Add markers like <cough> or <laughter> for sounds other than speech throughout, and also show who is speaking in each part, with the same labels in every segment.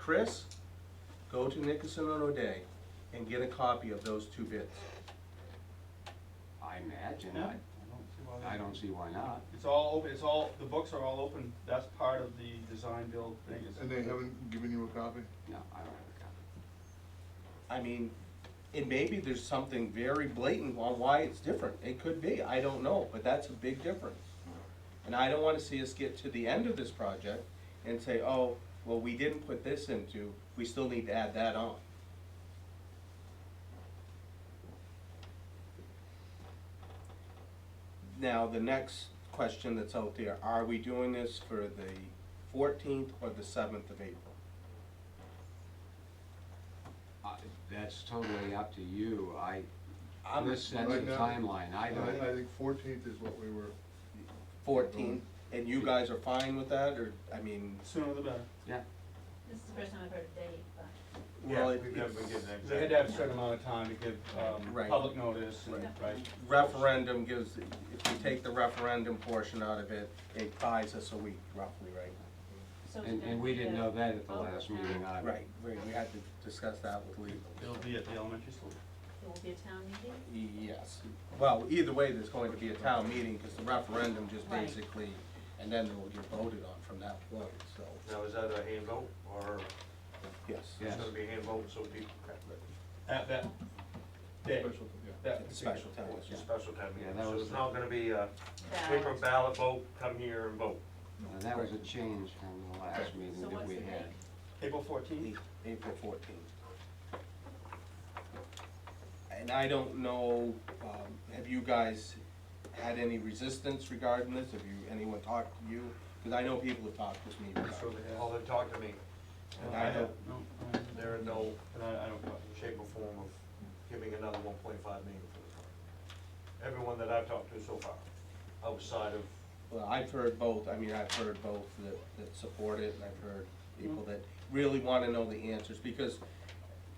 Speaker 1: Chris, go to Nickerson and O'Day and get a copy of those two bids.
Speaker 2: I imagine,
Speaker 3: Yeah.
Speaker 2: I, I don't,
Speaker 3: See why
Speaker 2: I
Speaker 3: they-
Speaker 2: don't see why not.
Speaker 3: It's all open, it's all, the books are all open, that's part of the design build thing. is-
Speaker 4: And they haven't given you a copy?
Speaker 2: No, I don't have a copy.
Speaker 1: I mean, it maybe there's something very blatant on why it's different. It could be, I don't know, but that's a big difference. And I don't wanna see us get to the end of this project and say, oh, well, we didn't put this into, we still need to add that on. Now, the next question that's out there, are we doing this for the fourteenth or the seventh of April?
Speaker 2: I- That's totally up to you, I,
Speaker 1: I'm
Speaker 2: this sets a
Speaker 4: Right now-
Speaker 2: timeline, I
Speaker 4: I
Speaker 2: don't,
Speaker 4: think fourteenth is what we were,
Speaker 1: 14, and you guys are fine with that, or, I mean,
Speaker 3: Sooner the better.
Speaker 2: yeah,
Speaker 5: This is the first time I've heard of date, but
Speaker 1: well,
Speaker 6: Yeah,
Speaker 1: it-
Speaker 6: we've never been given an
Speaker 3: They had
Speaker 6: exact.
Speaker 3: to have a certain amount of time to give, um,
Speaker 1: Right.
Speaker 3: public notice and,
Speaker 5: Right.
Speaker 3: right?
Speaker 1: referendum gives, if you take the referendum portion out of it, it buys us a week roughly, right?
Speaker 5: so it's
Speaker 2: and,
Speaker 5: gonna
Speaker 2: and we
Speaker 5: be
Speaker 2: didn't
Speaker 5: a-
Speaker 2: know that at the
Speaker 5: Oh,
Speaker 2: last
Speaker 5: yeah.
Speaker 2: meeting either.
Speaker 1: Right, we we had to discuss that with legal.
Speaker 3: It'll be at the elementary school.
Speaker 5: It will be a town meeting?
Speaker 1: Yes, well, either way, there's going to be a town meeting, because the referendum just
Speaker 5: Right.
Speaker 1: basically, and then it will get voted on from that point, so,
Speaker 6: Now, is that a hand vote, or
Speaker 1: yes.
Speaker 2: Yeah.
Speaker 6: it's gonna be a hand vote, so people,
Speaker 3: At that day,
Speaker 4: special, yeah.
Speaker 3: that
Speaker 1: It's a
Speaker 3: particular.
Speaker 1: special town,
Speaker 6: it's a
Speaker 1: meeting.
Speaker 6: special time,
Speaker 2: Yeah, that
Speaker 6: so
Speaker 2: was-
Speaker 6: it's not gonna be a paper
Speaker 5: Ballot.
Speaker 6: ballot vote, come here and vote.
Speaker 2: And that was a change from the last meeting
Speaker 5: So
Speaker 2: that
Speaker 5: what's
Speaker 2: we
Speaker 5: the date?
Speaker 2: had.
Speaker 3: April fourteenth,
Speaker 1: April fourteenth. And I don't know, um, have you guys had any resistance regarding this? Have you, anyone talked to you? Because I know people have talked with me
Speaker 3: I'm sure
Speaker 1: regarding
Speaker 3: they
Speaker 6: All
Speaker 3: have.
Speaker 6: they've talked to me,
Speaker 1: and
Speaker 3: Uh,
Speaker 2: Uh-huh.
Speaker 1: I
Speaker 3: have-
Speaker 1: don't-
Speaker 3: No, I haven't.
Speaker 6: they're in no
Speaker 3: But I, I don't,
Speaker 6: shape or form of giving another one point five million for the park. Everyone that I've talked to so far, outside of,
Speaker 1: Well, I've heard both, I mean, I've heard both that, that support it, and I've heard people that really wanna know the answers, because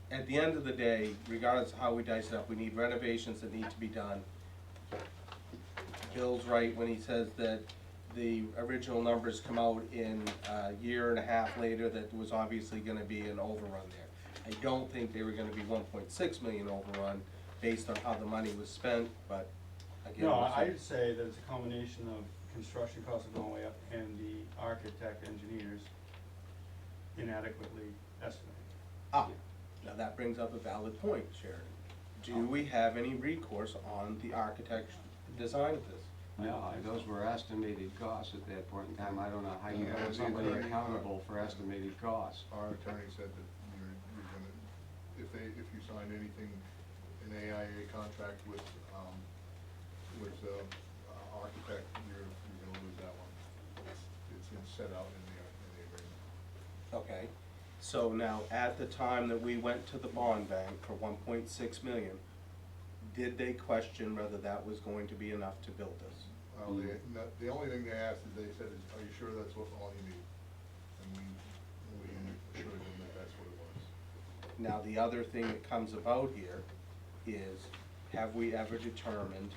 Speaker 1: at the end of the day, regardless of how we dice it up, we need renovations that need to be done. Bill's right when he says that the original numbers come out in a year and a half later, that there was obviously gonna be an overrun there. I don't think they were gonna be one point six million overrun based on how the money was spent, but again.
Speaker 3: no,
Speaker 1: we'll see.
Speaker 3: I'd say that it's a combination of construction costs are going way up and the architect engineers inadequately estimating.
Speaker 1: Ah, now that brings up a valid point, Sharon. Do we have any recourse on the architect's design of this?
Speaker 2: No, and those were estimated costs at that point in time, I don't know how you
Speaker 4: Yeah,
Speaker 2: hold
Speaker 4: it's
Speaker 2: somebody
Speaker 4: either-
Speaker 2: accountable for estimated costs.
Speaker 4: Our attorney said that you're, you're gonna, if they, if you sign anything, an AIA contract with, um, with, uh, uh, architect, you're, you're gonna lose that one. It's been set out in the, in the agreement.
Speaker 1: Okay, so now, at the time that we went to the bond bank for one point six million, did they question whether that was going to be enough to build this?
Speaker 4: Well, Um, they, no- the only thing they asked is, they said, is, are you sure that's what, all you need? And we, we assured them that that's what it was.
Speaker 1: Now, the other thing that comes about here is, have we ever determined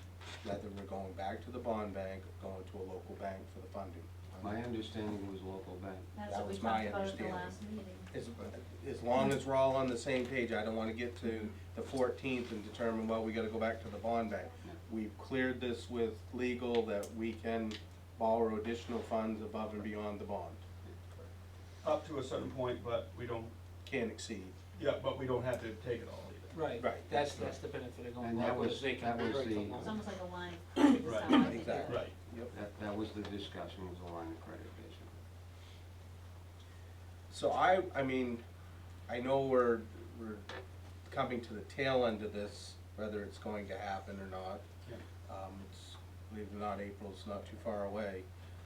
Speaker 1: whether we're going back to the bond bank, or going to a local bank for the funding?
Speaker 2: My understanding was local bank.
Speaker 5: That's
Speaker 1: That
Speaker 5: what we
Speaker 1: was my
Speaker 5: talked about at the
Speaker 1: understanding.
Speaker 5: last meeting.
Speaker 1: As, as long as we're all on the same page, I don't wanna get to the fourteenth and determine, well, we gotta go back to the bond bank. We've cleared this with legal that we can borrow additional funds above and beyond the bond,
Speaker 3: Up to a certain point, but we don't,
Speaker 1: can't exceed.
Speaker 3: yeah, but we don't have to take it all either.
Speaker 7: Right,
Speaker 1: Right.
Speaker 7: that's, that's the benefit of going
Speaker 2: And that
Speaker 7: local,
Speaker 2: was-
Speaker 7: is they
Speaker 2: that
Speaker 7: can
Speaker 2: was
Speaker 7: break the
Speaker 2: the-
Speaker 7: law.
Speaker 5: It's almost like a line.
Speaker 2: <coughs>
Speaker 5: This is how I think of it.
Speaker 1: Exactly.
Speaker 3: Right.
Speaker 1: Yep.
Speaker 2: That, that was the discussion, was the line of credit, basically.
Speaker 1: So I, I mean, I know we're, we're coming to the tail end of this, whether it's going to happen or not.
Speaker 3: Yeah.
Speaker 1: Um, it's, believe it or not, April's not too far away.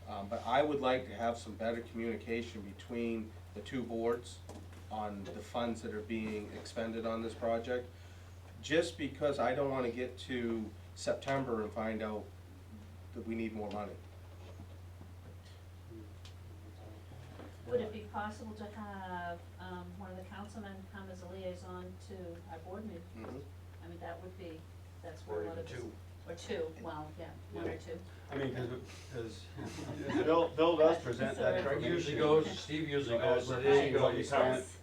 Speaker 1: Um, but I would like to have some better communication between the two boards on the funds that are being expended on this project. Just because I don't wanna get to September and find out that we need more money.
Speaker 5: Would it be possible to have, um, one of the councilmen come as a liaison to our board meeting? I mean, that would be, that's
Speaker 6: or
Speaker 5: where a lot
Speaker 6: even
Speaker 5: of this.
Speaker 6: two,
Speaker 5: or two, well, yeah, one or two.
Speaker 3: I mean, cause, it- cause Bill, Bill does present that
Speaker 5: Sorry.
Speaker 6: Usually
Speaker 3: information.
Speaker 6: goes, Steve usually
Speaker 3: As
Speaker 6: goes,
Speaker 3: we're
Speaker 6: there you
Speaker 3: paying
Speaker 6: go,
Speaker 3: what you
Speaker 6: you
Speaker 3: spent.
Speaker 6: covered.
Speaker 5: Yes.